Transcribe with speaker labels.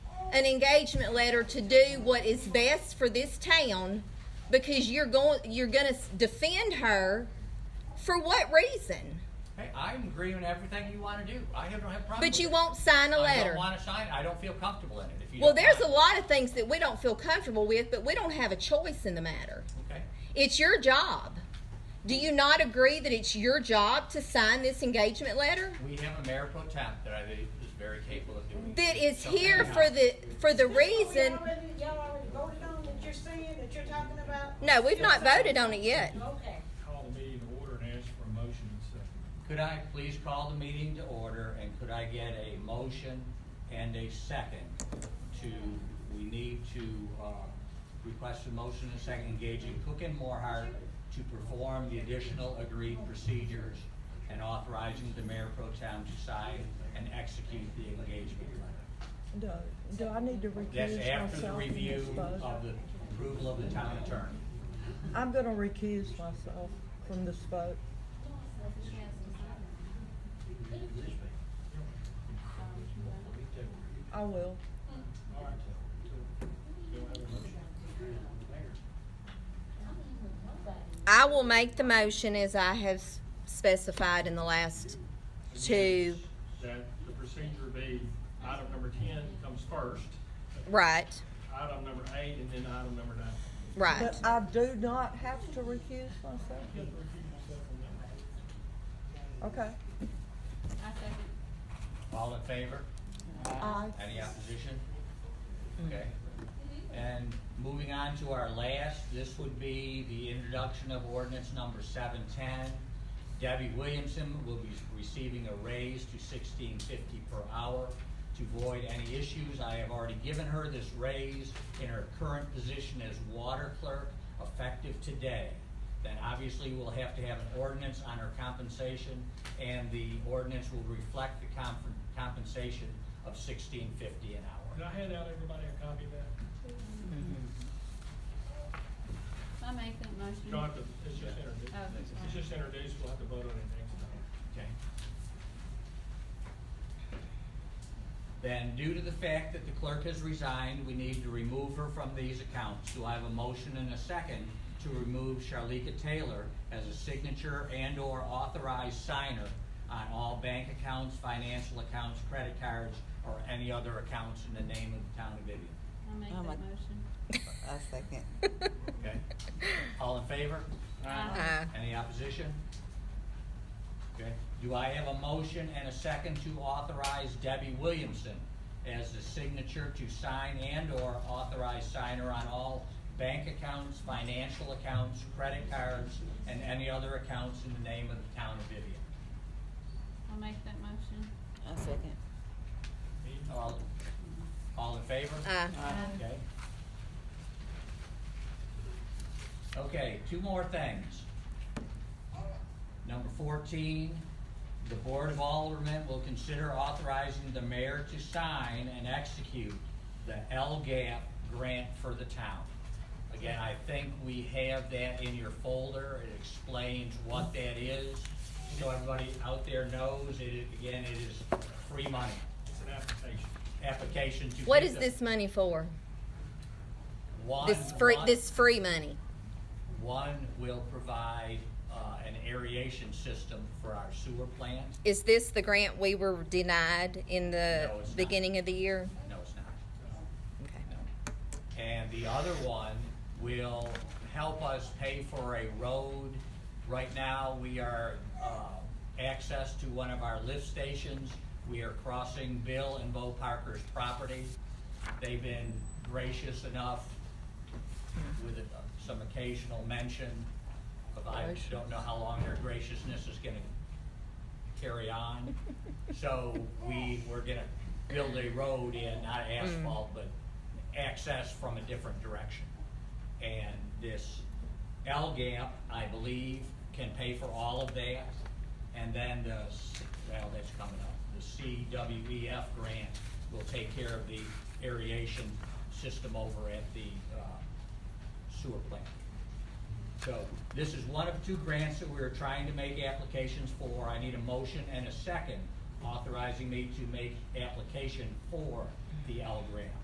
Speaker 1: an engagement letter to do what is best for this town because you're going you're going to defend her for what reason?
Speaker 2: Hey, I'm agreeing with everything you want to do. I have, don't have a problem.
Speaker 1: But
Speaker 2: with
Speaker 1: you
Speaker 2: it.
Speaker 1: won't sign a
Speaker 2: I don't
Speaker 1: letter.
Speaker 2: want to sign it. I don't feel comfortable in it. If you
Speaker 1: Well,
Speaker 2: don't
Speaker 1: there's a
Speaker 2: mind.
Speaker 1: lot of things that we don't feel comfortable with, but we don't have a choice in the matter.
Speaker 2: Okay.
Speaker 1: It's your job. Do you not agree that it's your job to sign this engagement letter?
Speaker 2: We have a mayor pro temp that I think is very capable of doing.
Speaker 1: That is
Speaker 2: something
Speaker 1: here
Speaker 2: now.
Speaker 1: for the for the
Speaker 3: This what we
Speaker 1: reason.
Speaker 3: already- Y'all already voted on that you're saying, that you're talking about?
Speaker 1: No, we've not voted on it yet.
Speaker 3: Okay.
Speaker 4: Call the meeting to order and ask for a motion and second.
Speaker 2: Could I please call the meeting to order and could I get a motion and a second to, we need to, uh, request a motion and second engaging Cook and Morehart to perform the additional agreed procedures and authorizing the mayor pro tem to sign and execute the engagement letter.
Speaker 5: Do, do I need to recuse
Speaker 2: That's
Speaker 5: myself?
Speaker 2: after the
Speaker 5: from
Speaker 2: review
Speaker 5: this vote?
Speaker 2: of the approval of the town attorney.
Speaker 5: I'm gonna recuse myself from this vote. I will.
Speaker 1: I will make the motion as I have s- specified in the last two.
Speaker 6: that the procedure be item number ten comes first,
Speaker 1: Right,
Speaker 6: item number eight, and then item number nine.
Speaker 1: right.
Speaker 5: But I do not have to recuse myself. Okay.
Speaker 2: All in favor?
Speaker 5: Aye.
Speaker 2: Any opposition? Okay. And moving on to our last, this would be the introduction of ordinance number seven ten. Debbie Williamson will be receiving a raise to sixteen fifty per hour. To avoid any issues, I have already given her this raise in her current position as water clerk effective today. Then obviously we'll have to have an ordinance on her compensation, and the ordinance will reflect the comp- compensation of sixteen fifty an hour.
Speaker 6: Can I hand out everybody a copy of that?
Speaker 7: I make that motion.
Speaker 6: You don't have to, it's just introduced,
Speaker 7: Oh, that's
Speaker 6: it's just introduced, we'll have to vote on it next time.
Speaker 2: Okay. Then, due to the fact that the clerk has resigned, we need to remove her from these accounts. Do I have a motion and a second to remove Charlika Taylor as a signature and/or authorized signer on all bank accounts, financial accounts, credit cards, or any other accounts in the name of the town of Vivian?
Speaker 7: I make
Speaker 8: Oh,
Speaker 7: that
Speaker 8: my-
Speaker 7: motion.
Speaker 8: A second.
Speaker 2: Okay? All in favor?
Speaker 1: Aye.
Speaker 2: Any opposition? Okay, do I have a motion and a second to authorize Debbie Williamson as the signature to sign and/or authorize signer on all bank accounts, financial accounts, credit cards, and any other accounts in the name of the town of Vivian?
Speaker 7: I make that motion.
Speaker 8: A second.
Speaker 2: All, all in favor?
Speaker 1: Aye.
Speaker 2: Okay. Okay, two more things. Number fourteen, the Board of Aldermen will consider authorizing the mayor to sign and execute the LGAP grant for the town. Again, I think we have that in your folder, it explains what that is, so everybody out there knows, it, again, it is free money,
Speaker 6: It's an application.
Speaker 2: application to.
Speaker 1: What
Speaker 2: get
Speaker 1: is
Speaker 2: the-
Speaker 1: this money for?
Speaker 2: One-
Speaker 1: This free
Speaker 2: one-
Speaker 1: this free money.
Speaker 2: One will provide uh, an aeration system for our sewer plant.
Speaker 1: Is this the grant we were denied in the
Speaker 2: No, it's not.
Speaker 1: beginning of the year?
Speaker 2: No, it's not.
Speaker 1: Okay.
Speaker 2: No. And the other one will help us pay for a road. Right now, we are, uh, access to one of our lift stations. We are crossing Bill and Bo Parker's property. They've been gracious enough with uh, some occasional mention of, I don't know how long their graciousness is gonna carry on. So we were gonna build a road in, not asphalt, but access from a different direction. And this L gap, I believe, can pay for all of that. And then the, s- well, that's coming up, the CWEF grant will take care of the aeration system over at the uh, sewer plant. So this is one of two grants that we're trying to make applications for. I need a motion and a second authorizing me to make application for the L grant.